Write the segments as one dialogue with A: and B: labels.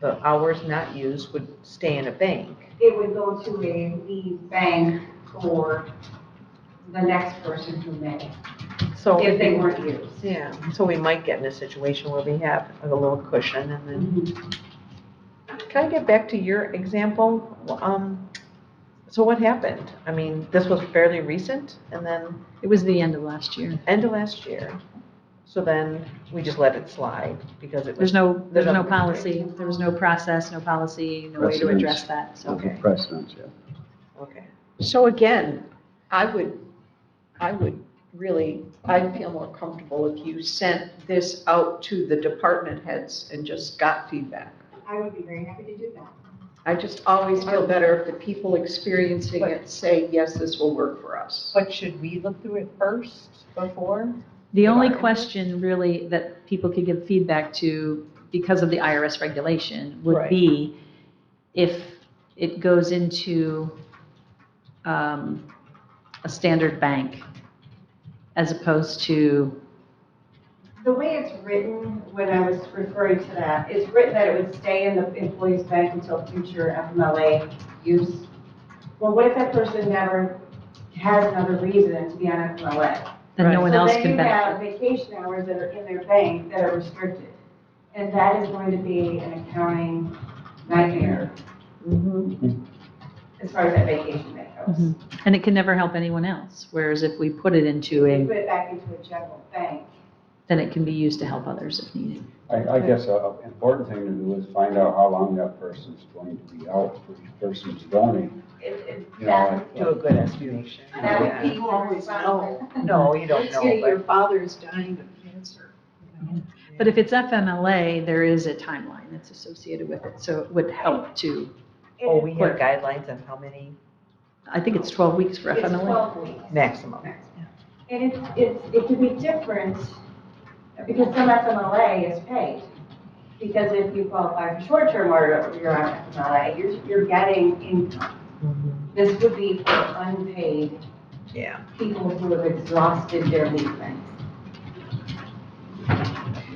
A: the hours not used would stay in a bank.
B: It would go to a lead bank for the next person who may,
A: So,
B: if they weren't used.
A: yeah, so we might get in a situation where we have a little cushion and then. Can I get back to your example? Um, so what happened? I mean, this was fairly recent and then
C: It was the end of last year.
A: end of last year. So then we just let it slide because it was.
C: There's no,
A: There's
C: there's
A: no-
C: no policy, there was no process, no policy, no way to
D: Precedence.
C: address that, so.
D: Of the precedence, yeah.
A: Okay.
E: So again, I would, I would really, I'd feel more comfortable if you sent this out to the department heads and just got feedback.
B: I would be very happy to do that.
E: I just always feel better if the people experiencing it say, yes, this will work for us.
F: But should we look through it first before?
C: The only
F: Right.
C: question really that people could give feedback to because of the IRS regulation would
F: Right.
C: be if it goes into um, a standard bank as opposed to,
B: The way it's written, when I was referring to that, it's written that it would stay in the employee's bank until future FMLA use. Well, what if that person never has another reason to be on FMLA?
C: then no one else can
B: So
C: benefit.
B: then you have vacation hours that are in their bank that are restricted. And that is going to be an accounting nightmare
A: Mm-hmm.
B: as far as that vacation that goes.
C: Mhm. And it can never help anyone else, whereas if we put it into
B: You
C: a,
B: put it back into a general bank.
C: then it can be used to help others if needed.
D: I, I guess a- an important thing to do is find out how long that person's going to be out, which person's zoning,
B: It- it-
D: you know.
B: that-
A: Do a
D: like,
A: good estimation. Oh,
B: That would be
E: People always know.
A: No, you don't know, but.
E: father's dying of cancer.
C: But if it's FMLA, there is a timeline that's associated with it, so it would help to,
A: Oh, we have guidelines on how many
C: I think it's 12 weeks for
B: It's
C: FMLA.
B: 12 weeks.
A: maximum.
B: And it's, it's, it could be different because some FMLA is paid. Because if you qualify for short-term or you're on FMLA, you're, you're getting income.
A: Mm-hmm.
B: This would be for unpaid
A: Yeah.
B: people who have exhausted their leave banks.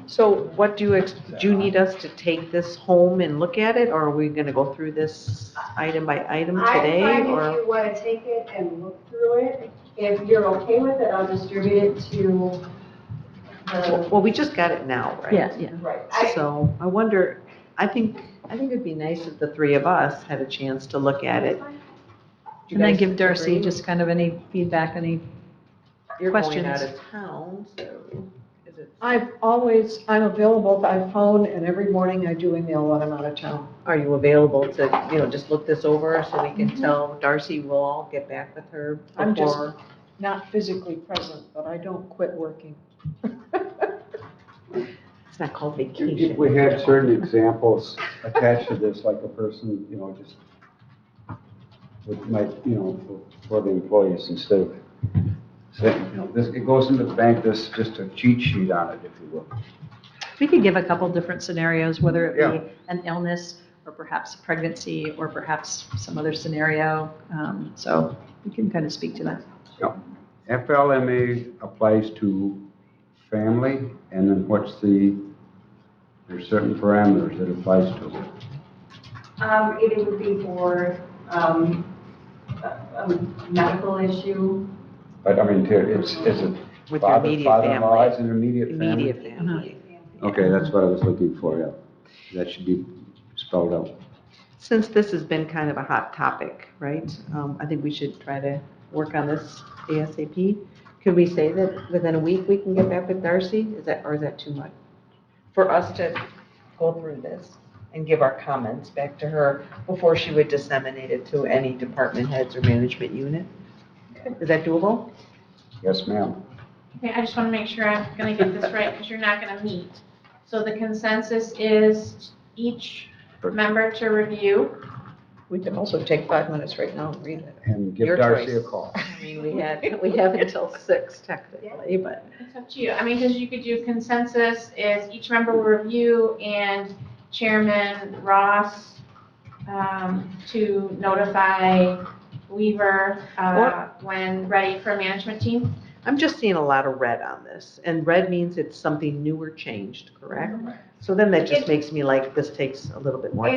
A: So what do you, ex- do you need us to take this home and look at it, or are we gonna go through this item by item today?
B: I find if
A: Or
B: you want to take it and look through it, if you're okay with it, I'll distribute it to the,
A: Well, we just got it now, right?
C: Yeah, yeah.
B: right. I-
A: So I wonder, I think, I think it'd be nice if the three of us had a chance to look at it. Do you
C: And then
A: guys
C: give Darcy
A: agree?
C: just kind of any feedback, any,
A: You're going
C: questions.
A: out of town, so is it,
E: I've always, I'm available by phone and every morning I do email when I'm out of town.
A: are you available to, you know, just look this over so we can tell Darcy, we'll all get back with her
E: I'm just-
A: before.
E: Not physically present, but I don't quit working.
A: It's not called
D: If
A: vacation.
D: we had certain examples attached to this, like a person, you know, just with my, you know, for- for the employees instead of saying, you know, this, it goes into the bank, this, just a cheat sheet on it, if you will.
C: we could give a couple different scenarios, whether
D: Yeah.
C: it be an illness or perhaps a pregnancy or perhaps some other scenario. Um, So we can kind of speak to that.
D: FLMA applies to family, and then what's the, there's certain parameters it applies to.
B: Um, it would be for, um, a, a medical issue.
D: But I mean, to- it's, is
A: With
D: it
A: your
D: father,
A: immediate
D: father-in-law,
A: family.
D: is an immediate family?
A: Immediate family.
D: Okay, that's what I was looking for, yeah. That should be spelled out.
A: Since this has been kind of a hot topic, right, um, I think we should try to work on this ASAP. Could we say that within a week, we can get back with Darcy? Is that, or is that too much? For us to go through this and give our comments back to her before she would disseminate it to any department heads or management unit? Is that doable?
D: Yes, ma'am.
G: Okay, I just want to make sure I'm going to get this right, because you're not going to meet. So the consensus is each member to review.
E: We can also take five minutes right now and read it.
D: And give
A: Your
D: Darcy a
A: choice.
D: call.
A: I mean, we had,
E: We have until six technically, but.
G: It's up to you. I mean, because you could do consensus is each member will review and Chairman Ross um, to notify Weaver uh, when ready for management team.
A: I'm just seeing a lot of red on this, and red means it's something new or changed, correct?
E: So then that just makes me like, this takes a little bit more
H: It-